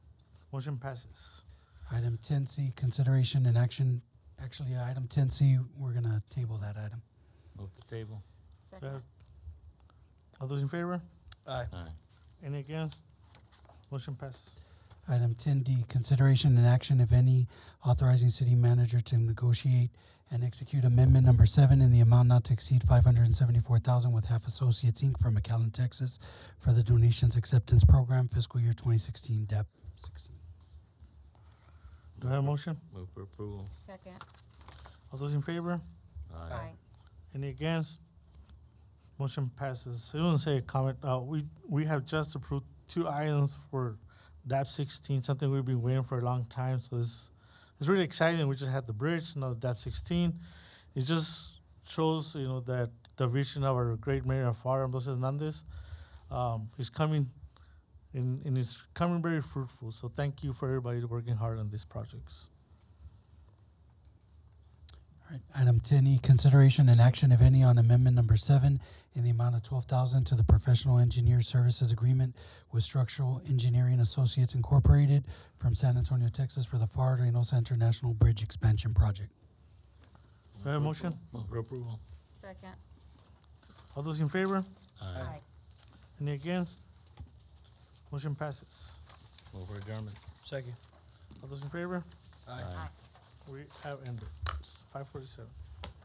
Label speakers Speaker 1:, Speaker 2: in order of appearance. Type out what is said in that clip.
Speaker 1: Motion passes.
Speaker 2: Item ten C, consideration and action. Actually, item ten C, we're gonna table that item.
Speaker 3: Move the table.
Speaker 1: Yes.
Speaker 4: Second.
Speaker 1: All those in favor?
Speaker 5: Aye.
Speaker 3: Aye.
Speaker 1: Any against? Motion passes.
Speaker 2: Item ten D, consideration and action, if any, authorizing city manager to negotiate and execute amendment number seven in the amount not to exceed five hundred and seventy-four thousand with Half Associates Inc. from McAllen, Texas for the donations acceptance program fiscal year twenty sixteen, E DAP sixteen.
Speaker 1: Do I have a motion?
Speaker 3: Move for approval.
Speaker 4: Second.
Speaker 1: All those in favor?
Speaker 4: Aye.
Speaker 1: Any against? Motion passes. I want to say a comment. Uh, we, we have just approved two items for DAP sixteen, something we've been waiting for a long time. So it's, it's really exciting. We just had the bridge, now DAP sixteen. It just shows, you know, that the vision of our great mayor of Ramos Hernandez, um, is coming and, and it's coming very fruitful. So thank you for everybody working hard on these projects.
Speaker 2: All right, Item ten E, consideration and action, if any, on amendment number seven in the amount of twelve thousand to the professional engineer services agreement with Structural Engineering Associates Incorporated from San Antonio, Texas for the FAR Reynosa International Bridge Expansion Project.
Speaker 1: Do I have a motion?
Speaker 3: Move for approval.
Speaker 4: Second.
Speaker 1: All those in favor?
Speaker 3: Aye.
Speaker 1: Any against? Motion passes.
Speaker 3: Move for adjournment.
Speaker 5: Second.
Speaker 1: All those in favor?
Speaker 5: Aye.
Speaker 4: Aye.
Speaker 1: We have ended. It's 547.